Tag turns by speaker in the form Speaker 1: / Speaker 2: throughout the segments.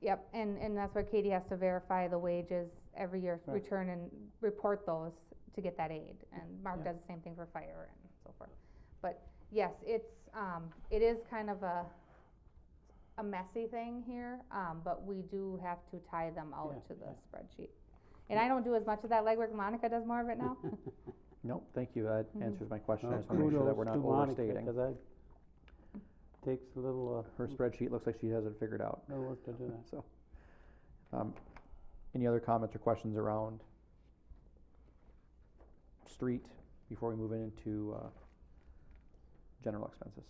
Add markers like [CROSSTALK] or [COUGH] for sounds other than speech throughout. Speaker 1: Yep, and, and that's why Katie has to verify the wages every year,
Speaker 2: Right.
Speaker 1: return and report those to get that aid, and Mark
Speaker 2: Yeah.
Speaker 1: does the same thing for fire and so forth. But yes, it's, um, it is kind of a, a messy thing here, um, but we do have to tie them out
Speaker 2: Yeah,
Speaker 1: to the
Speaker 2: yeah.
Speaker 1: spreadsheet. And I don't do as much of that legwork, Monica does more of it
Speaker 2: [LAUGHS]
Speaker 1: now, [LAUGHS]
Speaker 3: Nope, thank you, that
Speaker 1: Mhm.
Speaker 3: answers my question, I
Speaker 2: Well,
Speaker 3: just wanna make sure that
Speaker 2: Oh, kudos
Speaker 3: we're not
Speaker 2: to Monica,
Speaker 3: overstating.
Speaker 2: 'cause that Takes a little, uh,
Speaker 3: Her spreadsheet looks like she has it figured out,
Speaker 2: no work to do that.
Speaker 3: [LAUGHS] so. Um, any other comments or questions around street before we move into, uh, general expenses?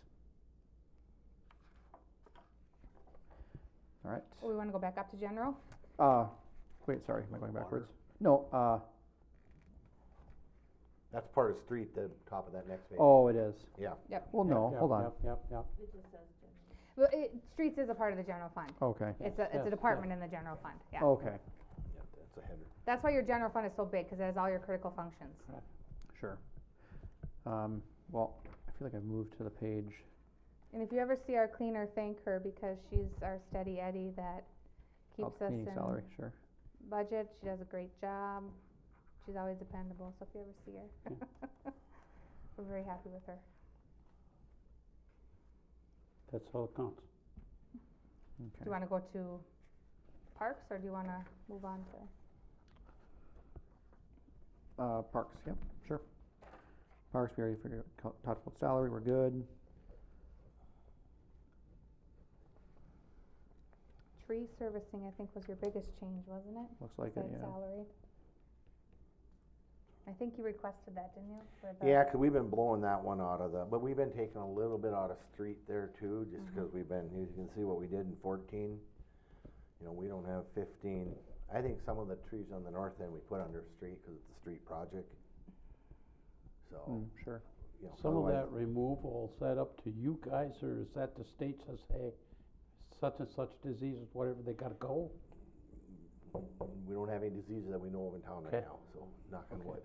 Speaker 3: All right,
Speaker 1: we wanna go back up to general?
Speaker 3: uh, wait, sorry, am I going
Speaker 4: Water.
Speaker 3: backwards? No, uh,
Speaker 4: That's part of street, the top of that next page.
Speaker 3: oh, it is.
Speaker 4: Yeah.
Speaker 1: Yep.
Speaker 3: Well, no,
Speaker 2: Yep,
Speaker 3: hold on,
Speaker 2: Yep, yep, yep.
Speaker 1: Well, it, streets is a part of the general fund,
Speaker 3: okay,
Speaker 1: it's a,
Speaker 2: Yes,
Speaker 1: it's a
Speaker 2: yes. Oh.
Speaker 1: department in the general fund, yeah.
Speaker 3: okay.
Speaker 4: Yeah, That's a header.
Speaker 1: That's why your general fund is so big, cause it has all your critical functions.
Speaker 3: Sure. Um, well, I feel like I've moved to the page.
Speaker 1: And if you ever see our cleaner, thank her because she's our steady Eddie that
Speaker 3: oh,
Speaker 1: keeps us
Speaker 3: Cleaning salary,
Speaker 1: in
Speaker 3: sure.
Speaker 1: budget. She does a great job. She's always dependable, so if you ever see her. [LAUGHS] We're very happy with her.
Speaker 2: That's all that counts.
Speaker 1: Do
Speaker 3: Okay.
Speaker 1: you wanna go to parks or do you wanna move on to?
Speaker 3: Uh, parks, yep, sure. Parks, we already figured, co- talked about salary, we're good.
Speaker 1: Tree servicing, I think, was your biggest change, wasn't it?
Speaker 3: Looks like it,
Speaker 1: Besides
Speaker 3: yeah.
Speaker 1: salary. I think you requested that, didn't you? for the-
Speaker 4: Yeah, 'cause we've been blowing that one out of the, but we've been taking a little bit out of street there too, just
Speaker 2: Mm-hmm.
Speaker 4: because we've been, you can see what we did in fourteen. You know, we don't have fifteen. I think some of the trees on the north end we put under street because it's a street project. So,
Speaker 3: Mm, sure.
Speaker 4: you know.
Speaker 2: Some of
Speaker 4: otherwise-
Speaker 2: that removal, is that up to you guys, or is that the state says, hey, such and such diseases, whatever, they gotta go?
Speaker 4: We don't have any diseases that we know of in town right
Speaker 2: Okay.
Speaker 4: now, so knock on wood.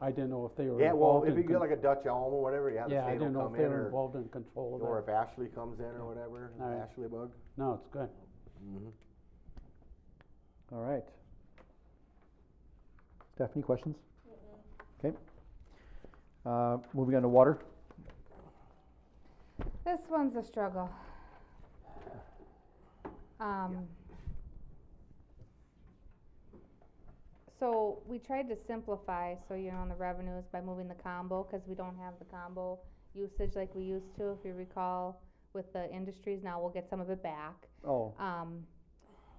Speaker 2: I didn't know if they were
Speaker 4: Yeah, well,
Speaker 2: involved
Speaker 4: if
Speaker 2: in.
Speaker 4: you get
Speaker 2: con-
Speaker 4: like a Dutch elm or whatever, yeah, the
Speaker 2: Yeah, I
Speaker 4: state
Speaker 2: didn't
Speaker 4: will
Speaker 2: know
Speaker 4: come
Speaker 2: if
Speaker 4: in
Speaker 2: they were
Speaker 4: or,
Speaker 2: involved in control
Speaker 4: or
Speaker 2: of
Speaker 4: if Ashley comes in or whatever,
Speaker 2: All right.
Speaker 4: Ashley bug.
Speaker 2: that. No, it's good.
Speaker 4: Mm-hmm.
Speaker 3: All right. Stephanie, questions? Okay. Uh, moving on to water.
Speaker 1: This one's a struggle. Um. So we tried to simplify, so you know, on the revenues by moving the combo, cause we don't have the combo usage like we used to, if you recall, with the industries, now we'll get some of it back.
Speaker 3: Oh,
Speaker 1: Um,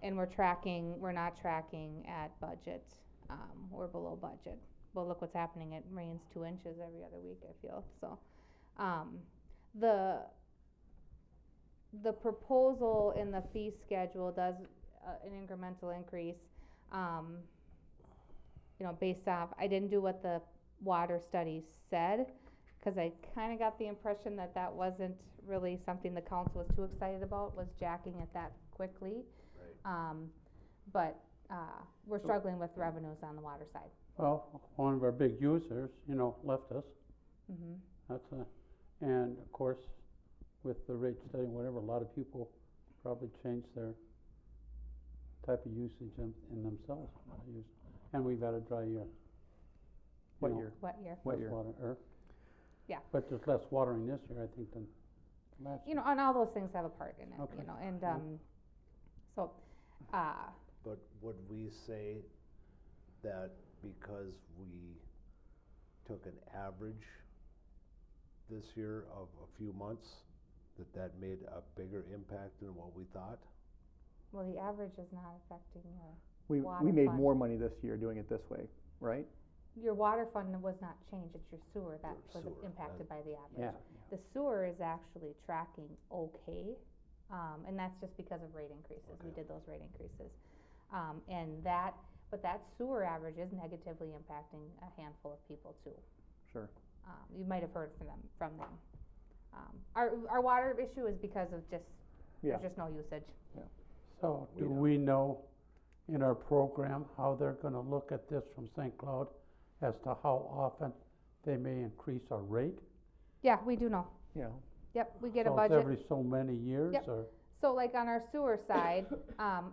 Speaker 1: and we're tracking, we're not tracking at budget, um, we're below budget. Well, look what's happening, it rains two inches every other week, I feel, so. Um, the, the proposal in the fee schedule does, uh, an incremental increase, um, you know, based off, I didn't do what the water study said, cause I kinda got the impression that that wasn't really something the council was too excited about, was jacking it that quickly. Um, but, uh, we're struggling with revenues on the water side.
Speaker 2: Well, one of our big users, you know, left us,
Speaker 1: hmm
Speaker 2: that's a, and of course, with the rate study, whatever, a lot of people probably changed their type of usage in, in themselves, what they use. and we've had a dry year. you
Speaker 3: what
Speaker 2: know.
Speaker 3: year?
Speaker 1: what year?
Speaker 3: What
Speaker 2: less
Speaker 3: year?
Speaker 2: water, er.
Speaker 1: Yeah.
Speaker 2: But there's less watering this year, I think, than last.
Speaker 1: You know, and all those things have a part in it, you
Speaker 2: Okay.
Speaker 1: know, and,
Speaker 2: Yeah.
Speaker 1: um, so, uh,
Speaker 5: But would we say that because we took an average this year of a few months, that that made a bigger impact than what we thought?
Speaker 1: well, the average is not affecting your,
Speaker 3: We, we
Speaker 1: Water
Speaker 3: made
Speaker 1: fund.
Speaker 3: more money this year doing it this way, right?
Speaker 1: your water fund was not changed, it's your sewer that was
Speaker 5: sewer, that-
Speaker 1: impacted by the
Speaker 2: Yeah,
Speaker 1: average. The sewer is actually tracking okay, um, and that's just because of rate increases, we did those rate increases. Um, and that, but that sewer average is negatively impacting a handful of people too.
Speaker 3: Sure.
Speaker 1: um, you might have heard from them, from them. Um, our, our water issue is because of just,
Speaker 3: Yeah.
Speaker 1: there's just no usage.
Speaker 2: so
Speaker 4: We
Speaker 2: do
Speaker 4: don't.
Speaker 2: we know in our program how they're gonna look at this from St. Cloud as to how often they may increase our rate?
Speaker 1: Yeah, we do know,
Speaker 3: Yeah,
Speaker 1: yep, we get a
Speaker 2: So it's
Speaker 1: budget,
Speaker 2: every so many years,
Speaker 1: Yep.
Speaker 2: or?
Speaker 1: so like on our sewer side, [COUGHS] um,